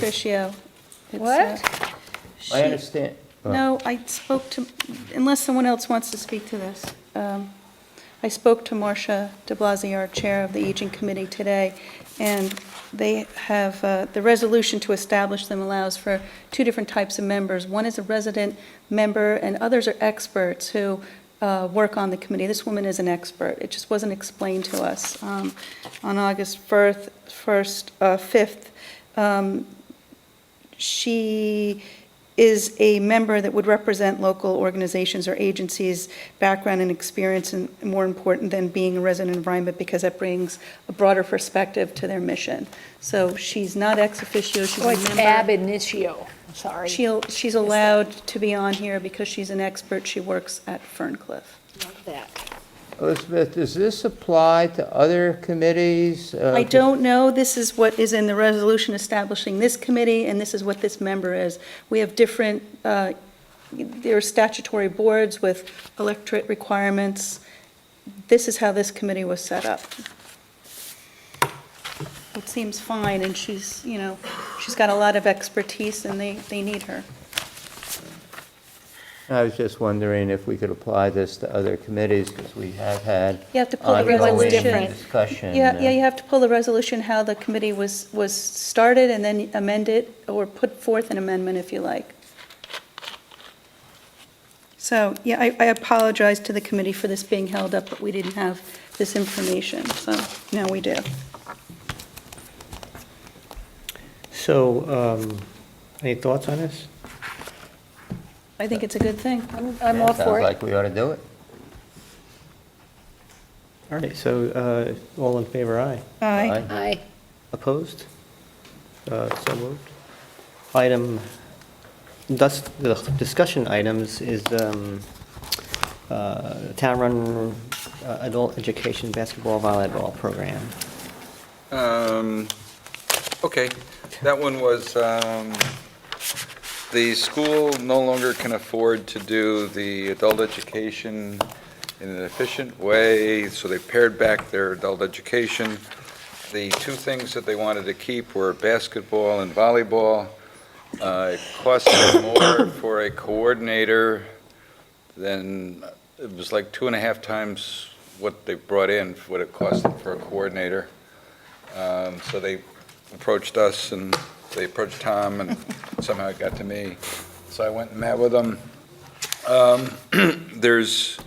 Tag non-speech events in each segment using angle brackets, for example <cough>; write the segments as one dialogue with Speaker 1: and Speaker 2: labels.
Speaker 1: Sufficio. It's,
Speaker 2: What?
Speaker 1: uh,
Speaker 3: I
Speaker 1: she-
Speaker 3: understand.
Speaker 1: No, I spoke to, unless someone else wants to speak to this, um, I spoke to Marcia de Blasio, our Chair of the Aging Committee today, and they have, uh, the resolution to establish them allows for two different types of members. One is a resident member, and others are experts who uh, work on the committee. This woman is an expert. It just wasn't explained to us. Um, On August 1st, 1st, uh, 5th, um, she is a member that would represent local organizations or agencies, background and experience, and more important than being a resident of Rhinebeck, because that brings a broader perspective to their mission. So she's not ex officio, she's a
Speaker 2: Oh,
Speaker 1: member.
Speaker 2: it's ab initio, sorry.
Speaker 1: She'll, she's allowed to be on here because she's an expert, she works at Ferncliff.
Speaker 2: Not That.
Speaker 3: Elizabeth, does this apply to other committees? Uh,
Speaker 1: I don't know, this is what is in the resolution establishing this committee, and this is what this member is. We have different, uh, there are statutory boards with electorate requirements. This is how this committee was set up. It seems fine, and she's, you know, she's got a lot of expertise, and they, they need her.
Speaker 3: I was just wondering if we could apply this to other committeties, because we have had
Speaker 1: You have to pull the
Speaker 3: ongoing
Speaker 1: resolution.
Speaker 3: discussion.
Speaker 1: Yeah,
Speaker 3: uh,
Speaker 1: yeah, you have to pull the resolution, how the committee was, was started, and then amend it, or put forth an amendment if you like. So, yeah, I, I apologize to the committee for this being held up, but we didn't have this information, so now we do.
Speaker 4: So, um, any thoughts on this?
Speaker 1: I think it's a good thing.
Speaker 2: I'm,
Speaker 3: yeah,
Speaker 2: I'm all for
Speaker 3: Sounds
Speaker 2: it.
Speaker 3: like we ought to do it.
Speaker 4: All right, so uh, all in favor, aye.
Speaker 1: Aye.
Speaker 2: Aye.
Speaker 4: Opposed? Uh, So moved. Item, thus, the discussion items is um, uh, town-run uh, adult education basketball volleyball program.
Speaker 5: Um, Okay, that one was, um, the school no longer can afford to do the adult education in an efficient way, so they pared back their adult education. The two things that they wanted to keep were basketball and volleyball. Uh, It cost them more for a coordinator than, it was like two and a half times what they brought in, what it cost them for a coordinator. Um, So they approached us, and they approached Tom, and somehow it got to me. So I went and met with them. Um, <clears throat> There's,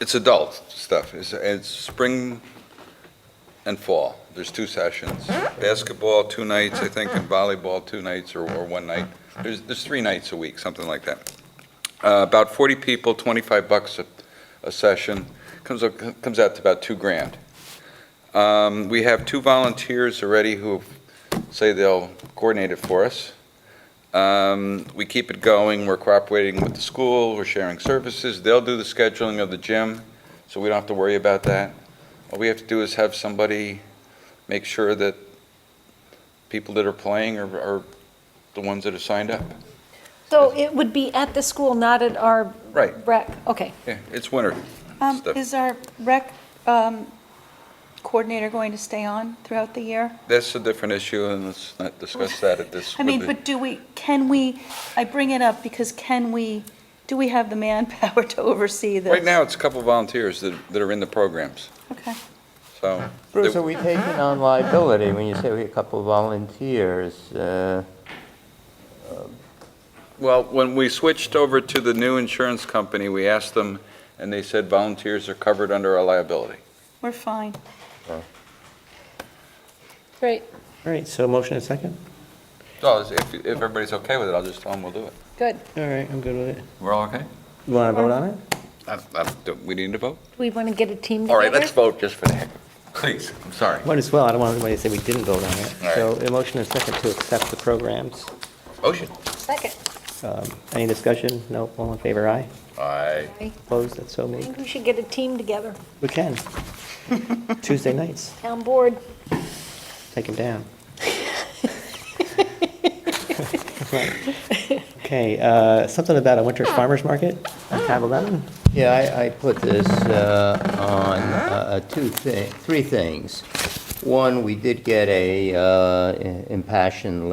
Speaker 5: it's adult stuff. It's, it's spring and fall. There's two sessions. Basketball, two nights, I think, and volleyball, two nights or, or one night. There's, there's three nights a week, something like that. Uh, About 40 people, 25 bucks a, a session. Comes, up- comes out to about two grand. Um, We have two volunteers already who say they'll coordinate it for us. Um, We keep it going, we're cooperating with the school, we're sharing services, they'll do the scheduling of the gym, so we don't have to worry about that. All we have to do is have somebody make sure that people that are playing are- are the ones that are signed up.
Speaker 2: So it would be at the school, not at our
Speaker 5: Right,
Speaker 2: rec, okay.
Speaker 5: yeah, it's winter
Speaker 1: Um,
Speaker 5: stuff.
Speaker 1: Is our rec um, coordinator going to stay on throughout the year?
Speaker 5: That's a different issue, and let's not discuss that at this.
Speaker 1: I mean,
Speaker 5: with the-
Speaker 1: but do we, can we, I bring it up because can we, do we have the manpower <laughs> to oversee this?
Speaker 5: Right now, it's a couple volunteers that that are in the programs,
Speaker 1: Okay.
Speaker 5: so.
Speaker 3: Bruce, are we taking on liability when you say we have a couple of volunteers? uh,
Speaker 5: Well, when we switched over to the new insurance company, we asked them, and they said volunteers are covered under our liability.
Speaker 1: We're fine.
Speaker 2: Great,
Speaker 4: All right, so motion and second?
Speaker 5: So if, if everybody's okay with it, I'll just tell them we'll do it.
Speaker 2: good.
Speaker 4: All right, I'm good with it.
Speaker 5: We're all okay?
Speaker 4: You want to vote on it?
Speaker 5: We need to vote?
Speaker 2: Do we want to get a team together?
Speaker 5: All right, let's vote just for the heck of it. Please, I'm sorry.
Speaker 4: Might as well, I don't want anybody to say we didn't vote on it.
Speaker 5: All right.
Speaker 4: So a motion and second to accept the programs.
Speaker 5: Motion.
Speaker 2: Second.
Speaker 4: Um, Any discussion? No, all in favor, aye.
Speaker 5: Aye.
Speaker 4: Opposed, that's so
Speaker 2: I
Speaker 4: moved.
Speaker 2: think we should get a team together,
Speaker 4: We can. Tuesday nights,
Speaker 2: town board.
Speaker 4: take them down. Okay, uh, something about a winter farmer's market on tab 11?
Speaker 3: Yeah, I, I put this uh, on uh, two things, three things. One, we did get a uh, impassioned